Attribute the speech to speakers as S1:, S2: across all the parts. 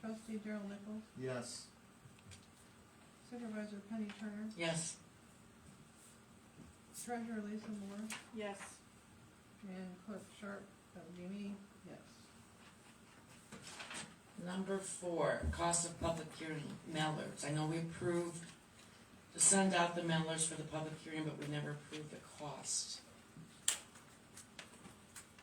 S1: trustee Daryl Nichols,
S2: Yes.
S1: supervisor Penny Turner,
S3: Yes.
S1: treasurer Lisa Moore,
S4: Yes.
S1: and clerk Sharp, that would be me, yes.
S3: Number four, cost of public hearing mallards. I know we approved to send out the mallards for the public hearing, but we never approved the cost.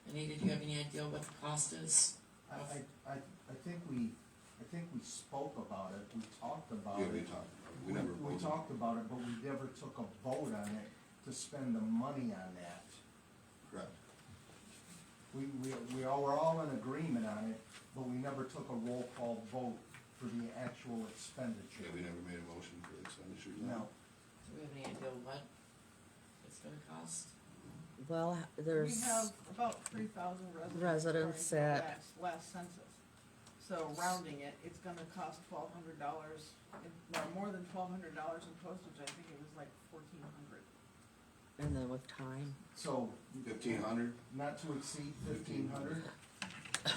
S3: Anita, do you have any idea what the cost is?
S2: I, I, I, I think we, I think we spoke about it, we talked about
S5: Yeah,
S2: it.
S5: we talked, we never
S2: We
S5: voted.
S2: talked about it, but we never took a vote on it to spend the money on that.
S5: Correct.
S2: We, we, we all, were all in agreement on it, but we never took a roll call vote for the actual
S5: Yeah,
S2: expenditure.
S5: we never made a motion for the expenditures.
S2: No,
S3: Do we have any idea what it's gonna cost?
S6: Well,
S1: We
S6: there's,
S1: have about three thousand residents.
S6: Residents
S1: according to
S6: at-
S1: last- Last census, so rounding it, it's gonna cost twelve hundred dollars, or more than twelve hundred dollars in postage, I think it was like fourteen hundred.
S6: and then with time,
S2: so
S5: Fifteen hundred?
S2: not to exceed fifteen hundred?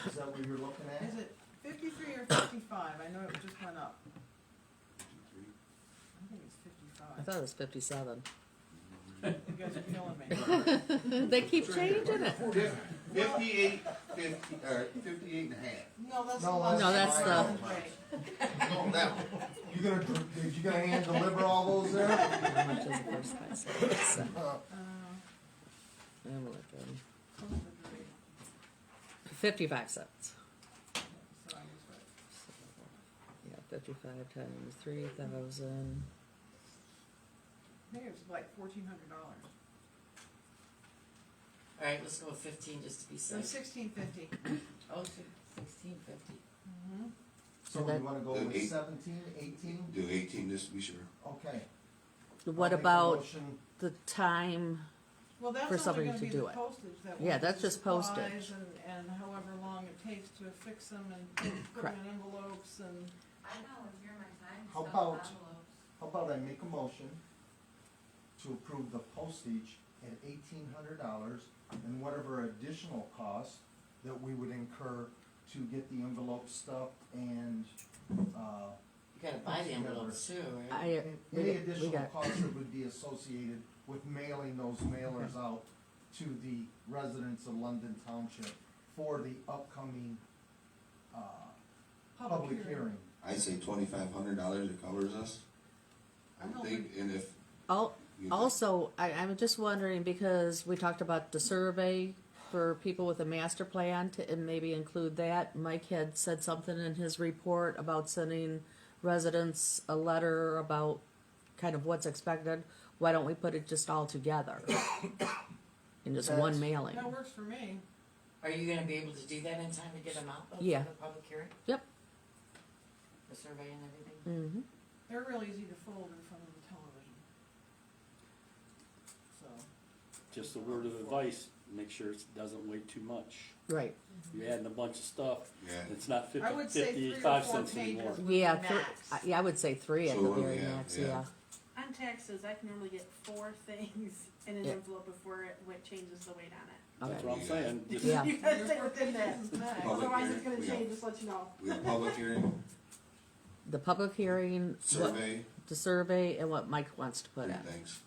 S2: Is that what you're looking at?
S1: Is it fifty-three or fifty-five? I know it just went up, I think it's
S6: I
S1: fifty-five,
S6: thought it was fifty-seven.
S1: you guys are killing me.
S6: They keep changing it.
S5: Fifty-eight, fifty, or fifty-eight and a half.
S1: No, that's the
S2: No,
S1: last.
S6: that's No, that's
S1: one.
S2: the-
S1: Right.
S5: No, that one.
S2: You gonna, dr- did you gonna hand deliver all those there?
S6: How much is the first price? So,
S2: Uh,
S1: Uh,
S6: I'm looking.
S1: close to three,
S6: Fifty-five cents.
S1: so I was right.
S6: So, Yeah, fifty-five times three thousand.
S1: I think it was like fourteen hundred dollars,
S3: Alright, let's go with fifteen just to be
S1: so
S3: safe.
S1: sixteen fifty.
S3: Oh, sixteen fifty.
S1: Mm-hmm.
S2: So we wanna go
S5: Uh,
S2: with
S5: eight.
S2: seventeen, eighteen?
S5: Do eighteen just to be sure.
S2: Okay.
S3: Oh,
S2: I'll
S6: What
S2: make a
S6: about
S2: motion.
S6: the time?
S1: Well, that's
S6: for
S1: only
S6: somebody
S1: gonna
S6: to
S1: be
S6: do
S1: the
S6: it.
S1: postage that.
S6: Yeah,
S1: we-
S6: that's just postage.
S1: supplies And, and however long it takes to affix them and put- put them in envelopes and,
S4: I volunteer my time.
S2: How about- How about I make a motion to approve the postage at eighteen hundred dollars and whatever additional cost that we would incur to get the envelope stuffed and, uh,
S3: You gotta buy the envelopes too, right?
S6: I, we
S2: any
S6: got- we
S2: additional
S6: got,
S2: costs that would be associated with mailing those mailers out to the residents of London Township for the upcoming, uh, public hearing.
S5: I'd say twenty-five hundred dollars, it covers us. I would think, and if.
S6: al-
S5: you-
S6: also, I, I'm just wondering because we talked about the survey for people with a master plan to, and maybe include that. Mike had said something in his report about sending residents a letter about kind of what's expected. Why don't we put it just all together? In just one
S2: That's-
S6: mailing.
S1: that works for me.
S3: Are you gonna be able to do that in time to get them out though for
S6: Yeah.
S3: the public hearing?
S6: Yep.
S3: The survey and everything?
S6: Mm-hmm.
S1: They're real easy to fold in front of the television. So,
S7: Just a word of advice, make sure it doesn't weigh too much.
S6: Right.
S7: You're adding a bunch of stuff,
S5: Yeah.
S7: it's not
S1: I
S7: fifty,
S1: would say three or
S7: fifty-five
S1: four
S7: cents anymore.
S1: pages.
S6: Yeah,
S4: Max.
S6: three, I- yeah, I would say three at
S5: So
S6: the
S5: what do we
S6: very
S5: have?
S6: max,
S5: Yeah.
S6: yeah.
S4: On taxes, I can normally get four things in an
S6: Yeah.
S4: envelope before it, what changes the weight on it.
S6: Okay.
S7: That's what I'm saying, just,
S6: Yeah.
S4: You gotta stay within that,
S5: Public
S4: otherwise it's
S5: hearing,
S4: gonna
S5: we
S4: change,
S5: don't-
S4: just let you know.
S5: We have a public hearing,
S6: The public hearing, what,
S5: survey,
S6: the survey, and what Mike wants to put
S5: three
S6: in.
S5: things,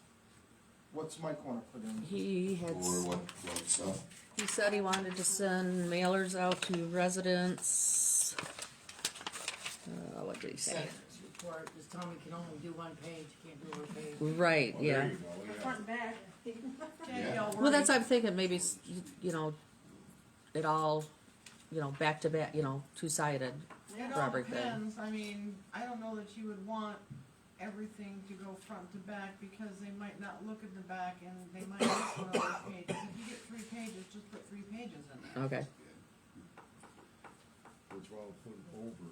S2: What's Mike wanna put in?
S6: He
S5: or
S6: had,
S5: what, what stuff.
S6: he said he wanted to send mailers out to residents. Uh, what did he say?
S8: Senator's report, just tell him we can only do one page, can't do a page.
S6: Right,
S5: Oh, there
S6: yeah.
S5: you go, yeah.
S4: Front and back,
S1: yeah, y'all worry.
S6: Well, that's, I'm thinking maybe, s- you know, it all, you know, back to back, you know, two-sided.
S1: It
S6: for
S1: all
S6: everything.
S1: depends, I mean, I don't know that you would want everything to go front to back, because they might not look at the back and they might miss one of those pages. If you get three pages, just put three pages in there.
S6: Okay.
S9: What's wrong with putting over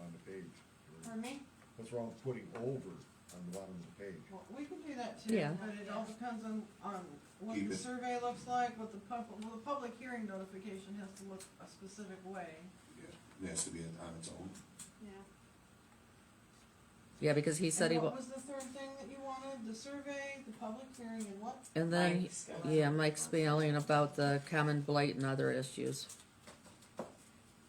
S9: on the page?
S1: For me,
S9: What's wrong with putting over on the bottom of the page?
S1: well, we can do that too,
S6: Yeah.
S1: but it all depends on, on what
S5: Keep
S1: the
S5: it.
S1: survey looks like, what the pub, well, the public hearing notification has to look a specific way.
S5: It has to be on its own.
S4: yeah.
S6: Yeah, because he said he,
S1: And what
S6: wa-
S1: was the third thing that you wanted? The survey, the public hearing, and what?
S6: and then,
S3: Mike's got-
S6: yeah, Mike's mailing about the common blight and other issues.